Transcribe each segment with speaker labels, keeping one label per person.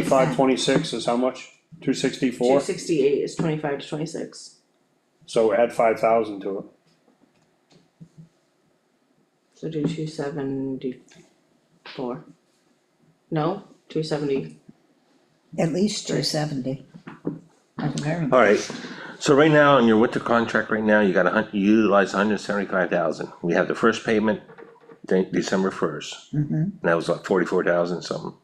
Speaker 1: Twenty-five, twenty-six is how much? Two
Speaker 2: Two
Speaker 1: sixty-four?
Speaker 2: sixty-eight is twenty-five to twenty-six.
Speaker 1: So add five thousand to it.
Speaker 2: So do two seventy-four. No, two seventy,
Speaker 3: At least two seventy. At the very,
Speaker 4: Alright, so right now, in your winter contract right now, you got a hun, you utilize hundred and seventy-five thousand, we have the first payment. De- December first,
Speaker 3: mhm.
Speaker 4: and that was like forty-four thousand something,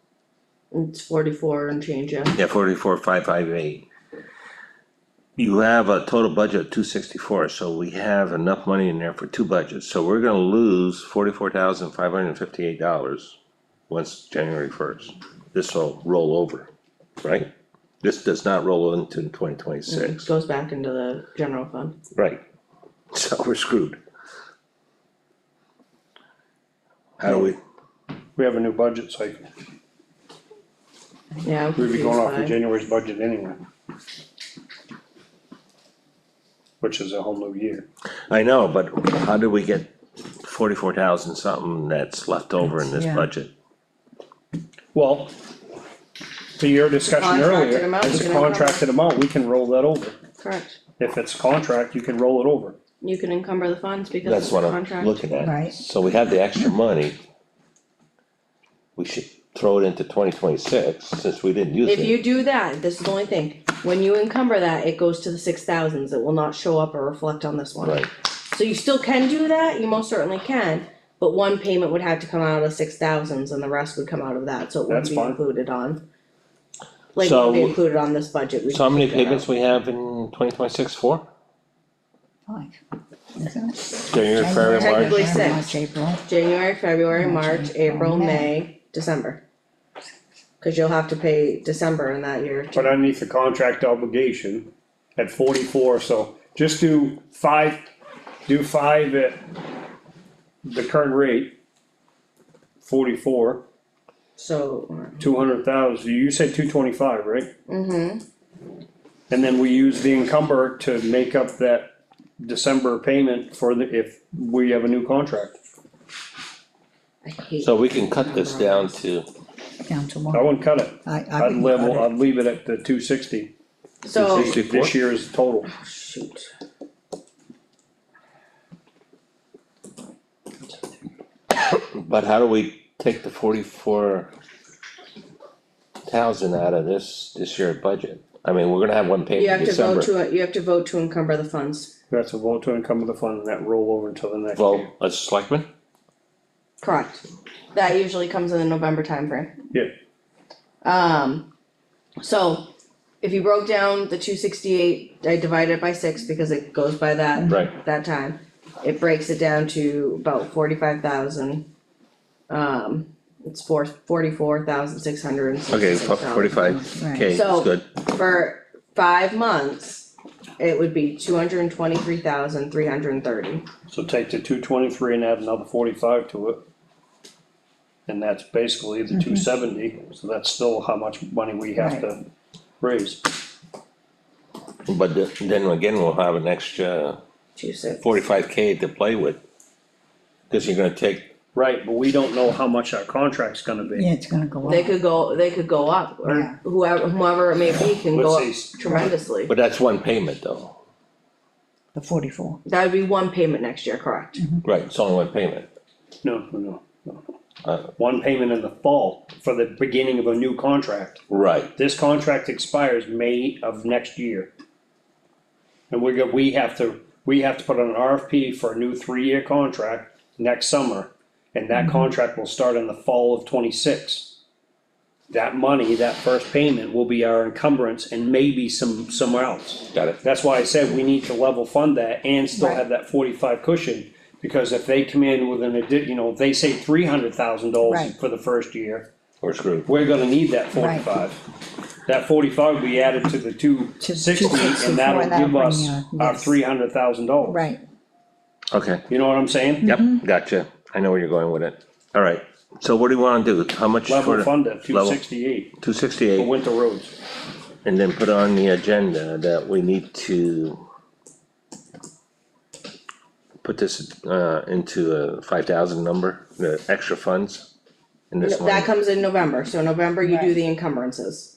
Speaker 2: it's forty-four and change, yeah.
Speaker 4: yeah, forty-four, five, five, eight. You have a total budget of two sixty-four, so we have enough money in there for two budgets, so we're gonna lose forty-four thousand, five hundred and fifty-eight dollars. Once January first, this'll roll over, right? This does not roll into twenty twenty-six.
Speaker 2: It Goes back into the general fund.
Speaker 4: Right. So we're screwed. How do we,
Speaker 1: We have a new budget cycle.
Speaker 2: Yeah. I'm
Speaker 1: We'd be going
Speaker 2: confused
Speaker 1: off
Speaker 2: by-
Speaker 1: of January's budget anyway. Which is a whole new year.
Speaker 4: I know, but how do we get forty-four thousand something that's left over in this
Speaker 3: Yeah.
Speaker 4: budget?
Speaker 1: Well, to your discussion
Speaker 2: Contracted
Speaker 1: earlier,
Speaker 2: amount,
Speaker 1: it's
Speaker 2: we
Speaker 1: a
Speaker 2: can encumber.
Speaker 1: contracted amount, we can roll that over.
Speaker 2: Correct,
Speaker 1: If it's contract, you can roll it over.
Speaker 2: you can encumber the funds because
Speaker 4: That's
Speaker 2: it's
Speaker 4: what
Speaker 2: a
Speaker 4: I'm
Speaker 2: contract.
Speaker 4: looking at.
Speaker 3: Right.
Speaker 4: So we have the extra money. We should throw it into twenty twenty-six, since we didn't use
Speaker 2: If
Speaker 4: it.
Speaker 2: you do that, this is the only thing, when you encumber that, it goes to the six thousands, it will not show up or reflect on this one.
Speaker 4: Right,
Speaker 2: So you still can do that, you most certainly can, but one payment would have to come out of six thousands and the rest would come out of that, so it
Speaker 1: That's
Speaker 2: wouldn't be
Speaker 1: fine.
Speaker 2: included on. Like,
Speaker 4: So-
Speaker 2: wouldn't be included on this budget. we
Speaker 4: so how many
Speaker 2: could take that out.
Speaker 4: payments we have in twenty twenty-six, four?
Speaker 3: Five, isn't it?
Speaker 4: January, February, March,
Speaker 2: Technically
Speaker 3: January,
Speaker 2: six.
Speaker 3: March, April,
Speaker 2: January, February, March, April,
Speaker 3: May.
Speaker 2: May, December. Cause you'll have to pay December in that year
Speaker 1: But
Speaker 2: too,
Speaker 1: underneath the contract obligation at forty-four, so just do five, do five at the current rate. Forty-four,
Speaker 2: so,
Speaker 1: two hundred thousand, you said two twenty-five, right?
Speaker 2: mm-hmm,
Speaker 1: And then we use the encumber to make up that December payment for the, if we have a new contract.
Speaker 2: I hate.
Speaker 4: so we can cut this down to,
Speaker 3: down to
Speaker 1: I
Speaker 3: one.
Speaker 1: wouldn't cut it,
Speaker 3: I, I
Speaker 1: I'd
Speaker 3: wouldn't cut
Speaker 1: level,
Speaker 3: it.
Speaker 1: I'd leave it at the two sixty,
Speaker 2: So,
Speaker 1: this year's total.
Speaker 2: shoot,
Speaker 4: but how do we take the forty-four thousand out of this, this year budget? I mean, we're gonna have one
Speaker 2: you
Speaker 4: payment
Speaker 2: have
Speaker 4: in
Speaker 2: to vote
Speaker 4: December.
Speaker 2: to, you have to vote to encumber the funds,
Speaker 1: That's a vote to encumber the fund and that roll over until the next year.
Speaker 4: Vote, a selectman?
Speaker 2: correct? That usually comes in the November timeframe.
Speaker 1: Yeah,
Speaker 2: Um, so if you broke down the two sixty-eight, I divide it by six because it goes by that.
Speaker 4: Right.
Speaker 2: That time, it breaks it down to about forty-five thousand. Um, it's four, forty-four thousand six hundred and
Speaker 4: Okay,
Speaker 2: sixty-six dollars.
Speaker 4: forty-five K
Speaker 3: Right.
Speaker 4: is
Speaker 2: So-
Speaker 4: good,
Speaker 2: For five months, it would be two hundred and twenty-three thousand three hundred and thirty.
Speaker 1: so take the two twenty-three and add another forty-five to it. And that's basically the two seventy, so that's still how much money we have to raise.
Speaker 4: but th- then again, we'll have an extra
Speaker 2: Two six.
Speaker 4: forty-five K to play with. Cause you're gonna take,
Speaker 1: Right, but we don't know how much our contract's gonna
Speaker 3: Yeah,
Speaker 1: be.
Speaker 3: it's gonna go
Speaker 2: They
Speaker 3: up,
Speaker 2: could go, they could go up,
Speaker 3: Yeah.
Speaker 2: or whoever, whoever it may be can go up
Speaker 1: Let's see.
Speaker 2: tremendously.
Speaker 4: but that's one payment though,
Speaker 3: the forty-four.
Speaker 2: That would be one payment next year, correct?
Speaker 4: right, it's only one payment,
Speaker 1: No, no, no, no.
Speaker 4: uh,
Speaker 1: One payment in the fall for the beginning of a new contract.
Speaker 4: right,
Speaker 1: This contract expires May of next year. And we're go, we have to, we have to put on an RFP for a new three-year contract next summer. And that contract will start in the fall of twenty-six. That money, that first payment will be our encumbrance and maybe some, somewhere else.
Speaker 4: got it,
Speaker 1: That's why I said we need to level fund that and still have that forty-five cushion. Because if they come in with an addi, you know, if they say three hundred thousand dollars
Speaker 3: Right.
Speaker 1: for the first year,
Speaker 4: we're screwed.
Speaker 1: we're gonna need that
Speaker 3: Right.
Speaker 1: forty-five. That forty-five will be added to the two sixty,
Speaker 3: 264,
Speaker 1: and that'll
Speaker 3: that'll
Speaker 1: give us
Speaker 3: bring you-
Speaker 1: our
Speaker 3: yes.
Speaker 1: three hundred thousand dollars.
Speaker 3: Right,
Speaker 4: Okay.
Speaker 1: You know what I'm saying?
Speaker 4: Yep,
Speaker 2: Mm-hmm.
Speaker 4: gotcha, I know where you're going with it, alright, so what do you wanna do, how much
Speaker 1: Level
Speaker 4: for
Speaker 1: fund at two
Speaker 4: level.
Speaker 1: sixty-eight
Speaker 4: two
Speaker 1: for
Speaker 4: sixty-eight?
Speaker 1: winter roads.
Speaker 4: And then put on the agenda that we need to. Put this uh into a five thousand number, the extra funds in this
Speaker 2: That
Speaker 4: line,
Speaker 2: comes in November, so November you do
Speaker 3: Right.
Speaker 2: the encumbrances.